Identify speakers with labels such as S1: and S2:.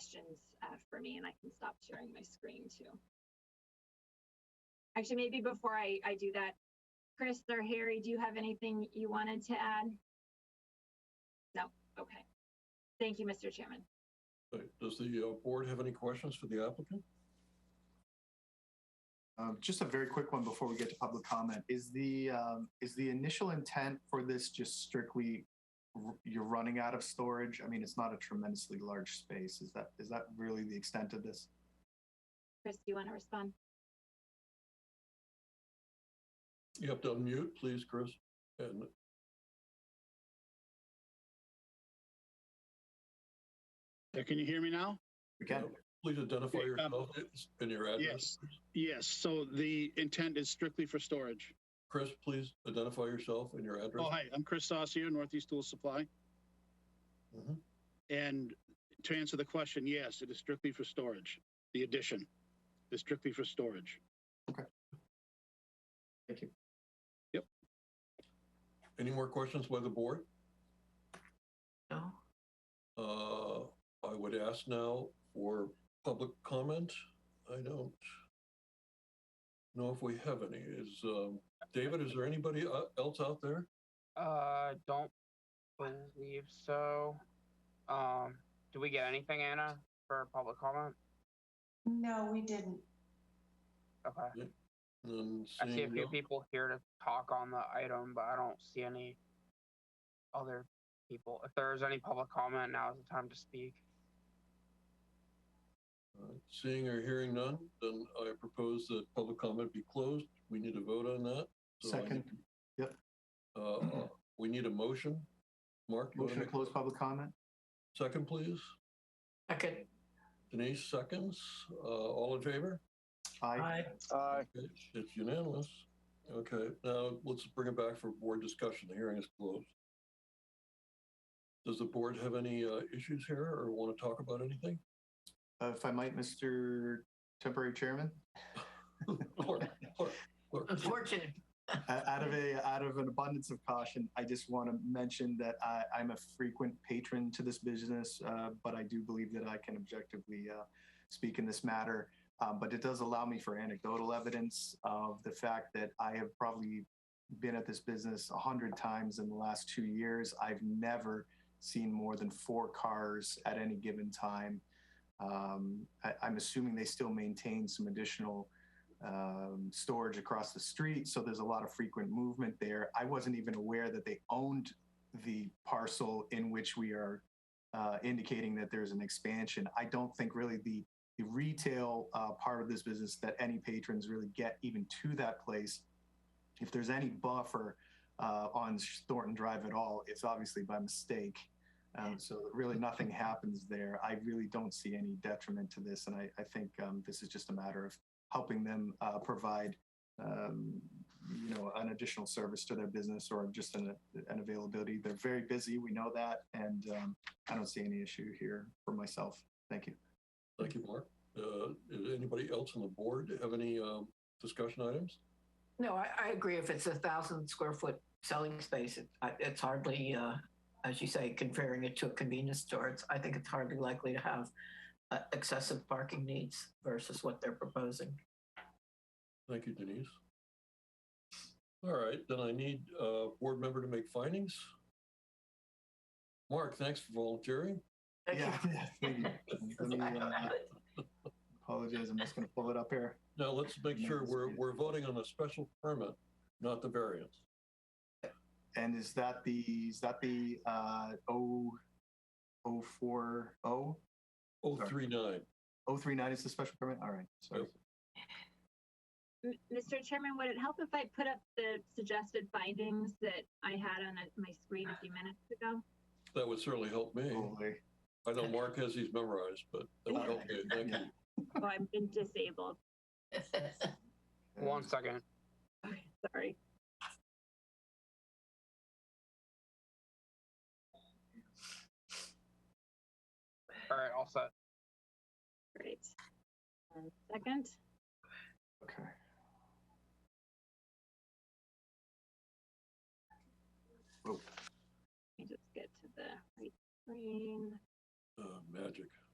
S1: questions uh, for me, and I can stop sharing my screen too. Actually, maybe before I, I do that, Chris or Harry, do you have anything you wanted to add? No, okay. Thank you, Mr. Chairman.
S2: Okay, Does the uh, board have any questions for the applicant?
S3: Um, just a very quick one before we get to public comment. Is the um, is the initial intent for this just strictly r- you're running out of storage? I mean, it's not a tremendously large space. Is that is that really the extent of this?
S1: Chris, do you want to respond?
S2: You have to unmute, please, Chris. And
S4: Uh, Can you hear me now?
S3: Again,
S2: uh, please identify
S4: Okay, um,
S2: yourself and your address.
S4: Yes. Yes, so the intent is strictly for storage.
S2: Chris, please identify yourself and your
S4: Oh,
S2: address.
S4: hi, I'm Chris Saucier, Northeast Tool Supply.
S2: Mhm.
S4: And to answer the question, yes, it is strictly for storage. The addition is strictly for storage.
S2: Any more questions by the board?
S5: No.
S2: Uh, I would ask now for public comment. I don't know if we have any. Is, um, David, is there anybody uh, else out there?
S6: Uh, don't believe so. Um, do we get anything, Anna, for public comment?
S5: No, we didn't.
S6: Okay.
S2: And
S6: I see a
S2: seeing
S6: few
S2: no-
S6: people here to talk on the item, but I don't see any other people. If there is any public comment, now is the time to speak.
S2: All right, Uh, Seeing or hearing none, then I propose that public comment be closed. We need a vote on that. So I
S3: Second.
S2: need-
S3: Yep.
S2: Uh, uh, We need a motion. Mark? you wanna
S3: Mm-hmm. motion to
S2: make-
S3: close public comment.
S2: Second, please.
S5: Second.
S2: Denise, seconds. Uh, All in favor?
S3: Aye.
S4: Aye.
S2: Okay, It's unanimous. Okay, now let's bring it back for board discussion. The hearing is closed. Does the board have any uh, issues here or want to talk about anything?
S3: Uh, if I might, Mr. Temporary Chairman,
S2: Clerk, clerk, clerk.
S5: Unfortunate.
S3: Uh, out of a out of an abundance of caution, I just want to mention that I, I'm a frequent patron to this business, uh, but I do believe that I can objectively uh, speak in this matter. Um, but it does allow me for anecdotal evidence of the fact that I have probably been at this business a hundred times in the last two years. I've never seen more than four cars at any given time. Um, I, I'm assuming they still maintain some additional um, storage across the street. So there's a lot of frequent movement there. I wasn't even aware that they owned the parcel in which we are uh, indicating that there's an expansion. I don't think really the the retail uh, part of this business that any patrons really get even to that place. If there's any buffer uh, on Thornton Drive at all, it's obviously by mistake. Um, so really nothing happens there. I really don't see any detriment to this, and I, I think um, this is just a matter of helping them uh, provide um, you know an additional service to their business or just an, an availability they're very busy we know that and um, i don't see any issue here for myself thank you
S2: Thank you, Mark. Uh, does Anybody else on the board have any um, discussion items?
S5: No, I, I agree. If it's a thousand square foot selling space, it, I- it's hardly, uh, as you say, comparing it to a convenience store, it's, I think it's hardly likely to have uh, excessive parking needs versus what they're proposing.
S2: Thank you, Denise. All right, then I need a board member to make findings. Mark, thanks for volunteering.
S5: Thank you.
S3: thank you. Let me, uh, apologize i'm just going to pull it up here
S2: Now let's make sure we're, we're voting on a special permit, not the variance.
S3: and is that the is that the uh, 0 040
S2: Oh, 039.
S3: 039 is the special permit all right sorry
S1: M- Mr. Chairman, would it help if I put up the suggested findings that I had on uh, my screen a few minutes ago?
S2: That would certainly help me.
S3: Totally.
S2: I know Mark has these memorized, but that would help me. Thank you.
S1: Oh, I've been disabled.
S3: uh,
S6: One
S3: Mm.
S6: second.
S1: Okay, Sorry.
S6: All right, all set.
S1: Great. One second.
S3: okay
S1: Let me just get to the right screen.
S2: Uh, Magic.